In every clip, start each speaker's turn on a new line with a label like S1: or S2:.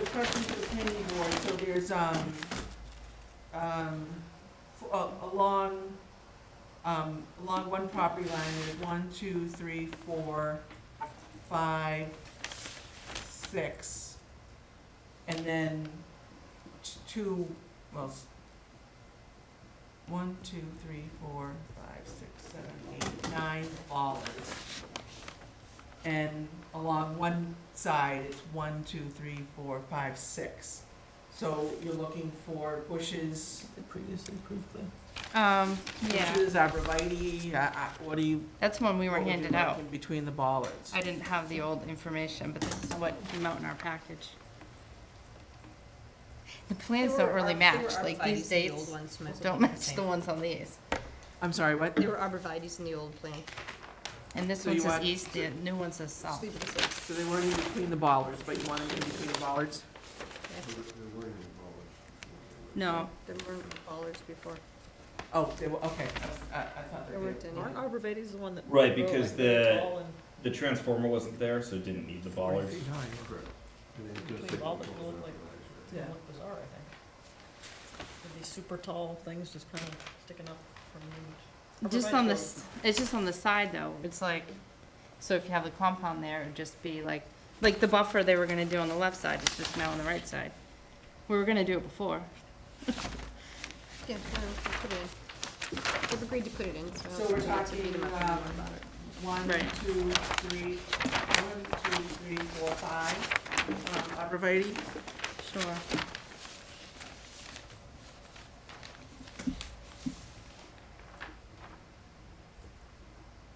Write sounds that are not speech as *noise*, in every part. S1: the question for the planning board, so there's, um, um, f- a- along, um, along one property line, there's one, two, three, four, five, six, and then t- two, well, s- one, two, three, four, five, six, seven, eight, nine dollars. And along one side, it's one, two, three, four, five, six. So you're looking for bushes,
S2: The previously approved plan.
S3: Um, yeah,
S1: bushes, arborvitae, uh, uh, what do you?
S3: that's one we were
S1: what would you
S3: handed
S1: like
S3: out.
S1: in Between the bollards.
S3: I didn't have the old information, but this is what came out in our package. The plans
S4: There
S3: don't
S4: were
S3: really
S4: ar-
S3: match,
S4: there were
S3: like
S4: arborvitaes
S3: these
S4: in the
S3: dates
S4: old ones, so might as well
S3: don't
S4: keep them
S3: match
S4: same.
S3: the ones on these.
S1: I'm sorry, what?
S4: There were arborvitaes in the old plan.
S3: And this
S1: So
S3: one
S1: you
S3: says
S1: want-
S3: east, the new one says
S4: Just
S3: south.
S4: leave it as is.
S1: So they weren't in between the bollards, but you want them in between the bollards?
S3: No,
S4: There weren't ballers before.
S1: Oh, they were, okay, I was- I, I thought they
S4: There
S1: were.
S4: weren't any.
S5: Aren't arborvitae's the one that?
S6: Right,
S5: grow
S6: because
S5: like
S6: the-
S5: tall and-
S6: The transformer wasn't there, so it didn't need the bollards.
S5: Between all the little, like,
S1: Yeah.
S5: look bizarre, I think. With these super tall things just kind of sticking up from the.
S3: just on this, it's just on the side though, it's like, so if you have the compound there, it'd just be like, like the buffer they were gonna do on the left side, it's just now on the right side. We were gonna do it before.
S4: Yeah, no, we'll put it in. We've agreed to put it in, so.
S1: So we're
S4: we don't have to
S1: talking,
S4: beat 'em
S1: um,
S4: up anymore about it.
S1: One,
S3: Right.
S1: two, three, one, two, three, four, five, um, arborvitae.
S3: Sure.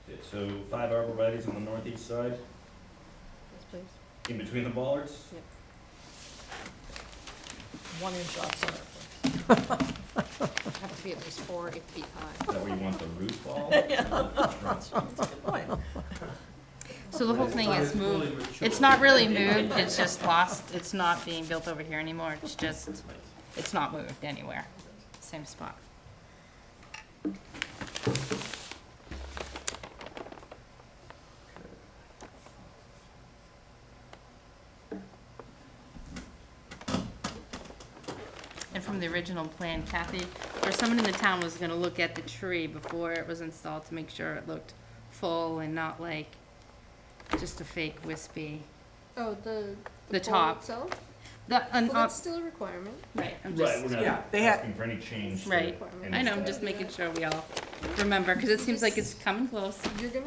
S6: Okay, So five arborvitae's on the northeast side,
S4: Yes, please.
S6: in between the bollards.
S5: One inch off center.
S4: It'd Have to be at least four, eight feet high.
S6: Is that where you want the
S3: *laughs*
S6: root ball? Yeah.
S3: So the whole thing is moved, it's not really moved, it's just lost, it's not being built over here anymore, it's just, it's not moved anywhere, same spot. And from the original plan, Kathy, or someone in the town was gonna look at the tree before it was installed to make sure it looked full and not like just a fake wispy.
S4: Oh, the.
S3: The
S4: pole
S3: top.
S4: Itself?
S3: The,
S4: Well,
S3: an, uh,
S4: that's still a requirement.
S3: right, I'm
S6: Right,
S3: just,
S6: we're
S1: yeah,
S6: not
S1: they had-
S6: asking for any change. to
S3: Right.
S6: any
S3: I know, I'm
S6: style.
S3: just making sure we all remember, cause it seems like it's coming close.
S4: You're gonna,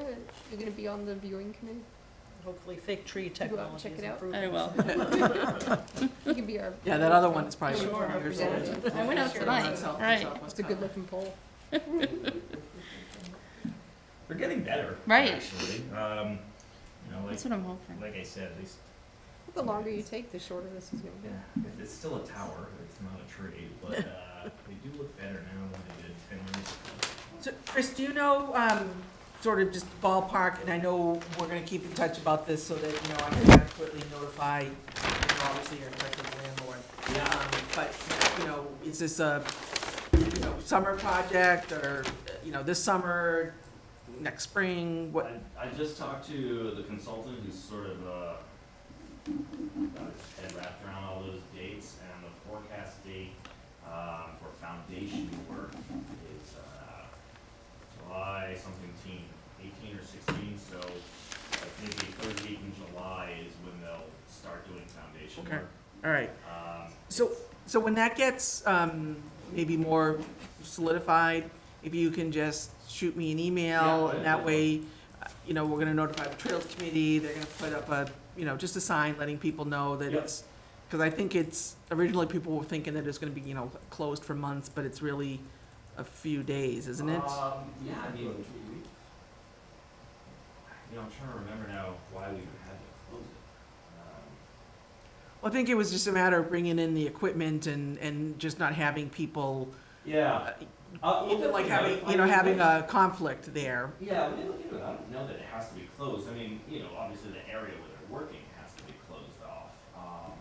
S4: you're gonna be on the viewing committee?
S5: Hopefully fake tree
S4: out and
S5: technology
S4: check
S5: is
S4: it out?
S5: improving.
S3: I will.
S4: You can be our.
S1: Yeah, that other one is probably.
S4: Sure.
S1: from years old.
S4: Representative.
S3: I went out tonight, right,
S4: It's a good looking pole.
S6: They're getting better.
S3: Right.
S6: Actually, um, you know, like,
S3: that's what I'm hoping.
S6: like I said, at least,
S4: The longer you take, the shorter this is gonna be.
S6: it's still a tower, it's not a tree, but, uh, they do look better now than they did ten years ago.
S1: So, Chris, do you know, um, sort of just ballpark, and I know we're gonna keep in touch about this so that, you know, I can adequately notify, you know, obviously, your collective landlord. Um, but, you know, is this a, you know, summer project, or, you know, this summer, next spring, what?
S6: I, I just talked to the consultant who's sort of, uh, got his head wrapped around all those dates, and the forecast date, uh, for foundation work is, uh, July something teen, eighteen or sixteen, so, like, maybe third week in July is when they'll start doing foundation
S1: Okay.
S6: work.
S1: All right,
S6: Um,
S1: So, so when that gets, um, maybe more solidified, if you can just shoot me an email,
S6: Yeah.
S1: and that way, uh, you know, we're gonna notify the Trails Committee, they're gonna put up a, you know, just a sign letting people know that
S6: Yeah.
S1: it's, because I think it's, originally people were thinking that it's gonna be, you know, closed for months, but it's really a few days, isn't it?
S6: Um, yeah, I mean, we, you know, I'm trying to remember now why we even had to close it. Um,
S1: Well, I think it was just a matter of bringing in the equipment and, and just not having people,
S6: Yeah. Uh, we'll
S1: even like
S6: definitely
S1: having,
S6: notify
S1: you know,
S6: you.
S1: having a conflict there.
S6: Yeah, we look into it. I don't know that it has to be closed. I mean, you know, obviously the area where they're working has to be closed off. Um,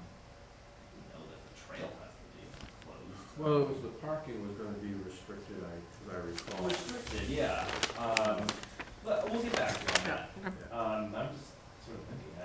S6: you know that the trail has to be closed.
S7: Well, it was the parking was gonna be restricted, I, as I
S1: Oh,
S7: recall.
S6: Restricted, yeah. Um, but we'll get back to you on that. Um, I'm just sort of thinking,